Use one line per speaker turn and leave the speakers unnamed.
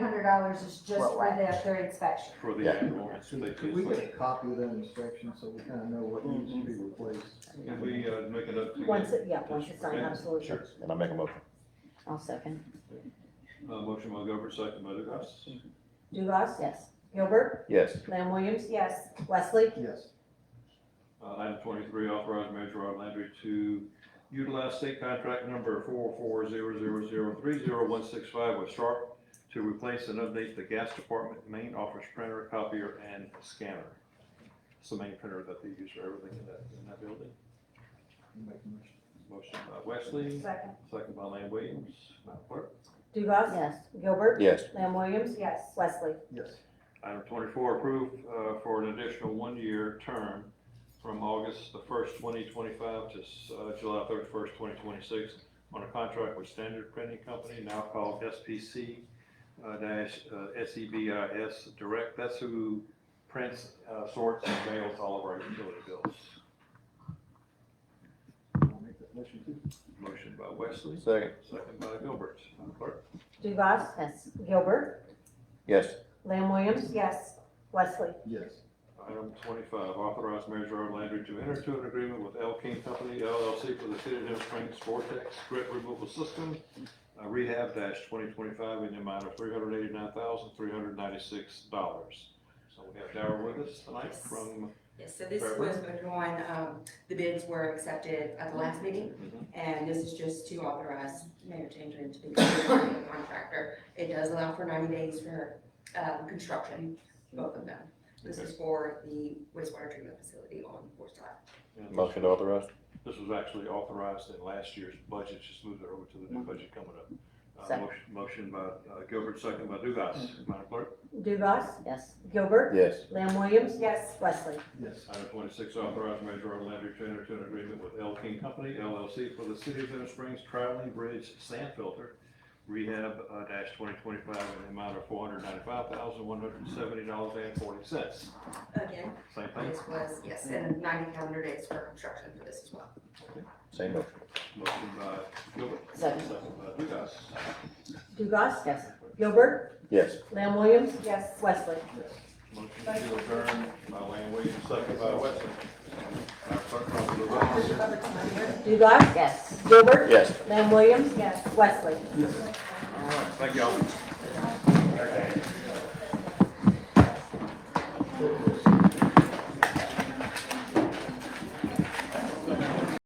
hundred dollars is just for
Worldwide.
that, their inspection.
for the
Yeah.
annual.
Could we get a copy of that inspection so we kind of know what needs to be replaced?
Can we uh, make it up to you?
Once, it- yeah, once it's done, absolutely.
Sure, and I make a motion.
I'll second.
Uh, motion by Gilbert, second by DeGrasse.
Dugas,
Yes.
Gilbert,
Yes,
Lamb Williams,
Yes,
Wesley,
Yes,
Uh, item twenty-three, authorize Major Rod Landry to utilize state contract number four four zero zero zero three zero one six five with Sharp to replace and update the gas department main office printer, copier, and scanner. It's the main printer that they use for everything in that, in that building.
make a motion.
Motion by Wesley,
second,
second by Lane Williams, Madam Clerk.
Dugas,
yes,
Gilbert,
yes,
Lamb Williams,
yes,
Wesley.
Yes,
Item twenty-four, approved uh, for an additional one-year term from August the first, twenty twenty-five to uh, July thirty-first, twenty twenty-six on a contract with Standard Printing Company, now called SPC uh, dash uh, SEBIS Direct. That's who prints, uh, sorts, and mails all of our utility bills.
I'll make that motion too.
Motion by Wesley,
second,
second by Gilbert. Madam Clerk?
Dugas,
yes,
Gilbert,
yes,
Lamb Williams,
yes,
Wesley.
Yes,
Item twenty-five, authorize Mayor Gerard Landry to enter into an agreement with L King Company LLC for the City of Denver Springs Vortex Grit Removal System uh, Rehab twenty twenty-five in the amount of three hundred eighty-nine thousand, three hundred ninety-six dollars. So we have Darrell with us tonight
Yes.
from,
Yes, so this
Fair
was withdrawn, um, the bids were accepted at the last meeting, and this is just to authorize mayor to enter into the agreement with the contractor. It does allow for ninety days for, um, construction, both of them. This is for the wastewater treatment facility on Forest Drive.
and
motion to authorize,
this was actually authorized in last year's budget, just moved it over to the new budget coming up. Uh,
Second.
motion- Motion by uh, Gilbert, second by Dugas. Madam Clerk?
Dugas,
yes,
Gilbert,
yes,
Lamb Williams,
yes,
Wesley.
yes,
Item twenty-six, authorize Mayor Gerard Landry to enter into an agreement with L King Company LLC for the City of Denver Springs Traveling Bridge Sand Filter Rehab uh, dash twenty twenty-five in the amount of four hundred ninety-five thousand, one hundred seventy dollars and forty cents.
Again,
Same thing,
this was, yes, and ninety calendar days for construction for this as well.
same motion,
motion by Gilbert.
Second.
by Dugas.
Dugas,
yes,
Gilbert,
yes,
Lamb Williams,
yes.
Wesley.
yes.
Motion to adjourn by Lane Williams, second by Wesson. Our clerk calls the roll.
Dugas,
Yes.
Gilbert,
yes.
Lamb Williams,
Yes.
Wesley.
Thank y'all.